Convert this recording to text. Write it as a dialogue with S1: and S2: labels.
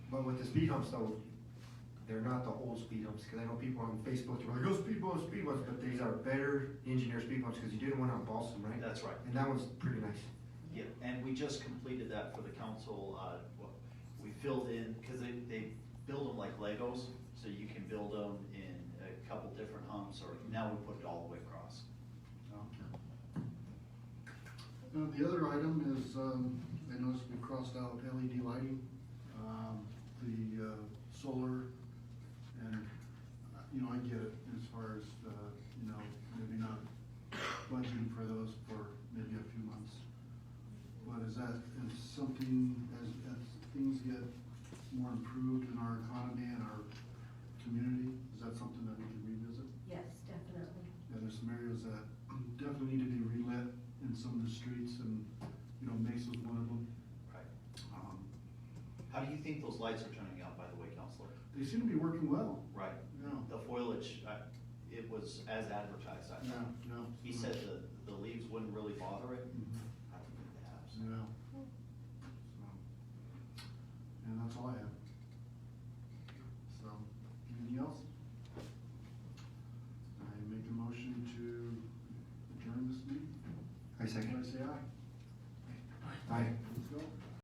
S1: But with the speed humps though, they're not the old speed humps, cause I know people on Facebook, they're like, oh, speed bumps, speed bumps, but these are better engineered speed bumps, cause you did one on Boston, right?
S2: That's right.
S1: And that one's pretty nice.
S2: Yeah, and we just completed that for the council, uh, well, we filled in, cause they, they build them like Legos, so you can build them in a couple different humps, or now we put it all the way across.
S3: Uh, the other item is, um, I noticed we crossed out LED lighting, um, the, uh, solar, and, uh, you know, I get it as far as, uh, you know, maybe not budgeting for those for maybe a few months. But is that, is something, as, as things get more improved in our economy and our community, is that something that we can revisit?
S4: Yes, definitely.
S3: Yeah, there's some areas that definitely need to be relit in some of the streets and, you know, Mesa's one of them.
S2: Right.
S3: Um,
S2: How do you think those lights are turning out, by the way, Counselor?
S3: They seem to be working well.
S2: Right,
S3: Yeah.
S2: the foliage, I, it was as advertised, I
S3: Yeah,
S2: thought.
S3: yeah.
S2: He said the, the leaves wouldn't really bother it.
S1: Mm-hmm.
S3: Mhm.
S2: I don't think they have, so.
S3: Yeah. So, And that's all I have. So, anything else? I make a motion to adjourn this meeting.
S1: I second.
S3: Everybody say aye.
S1: Aye.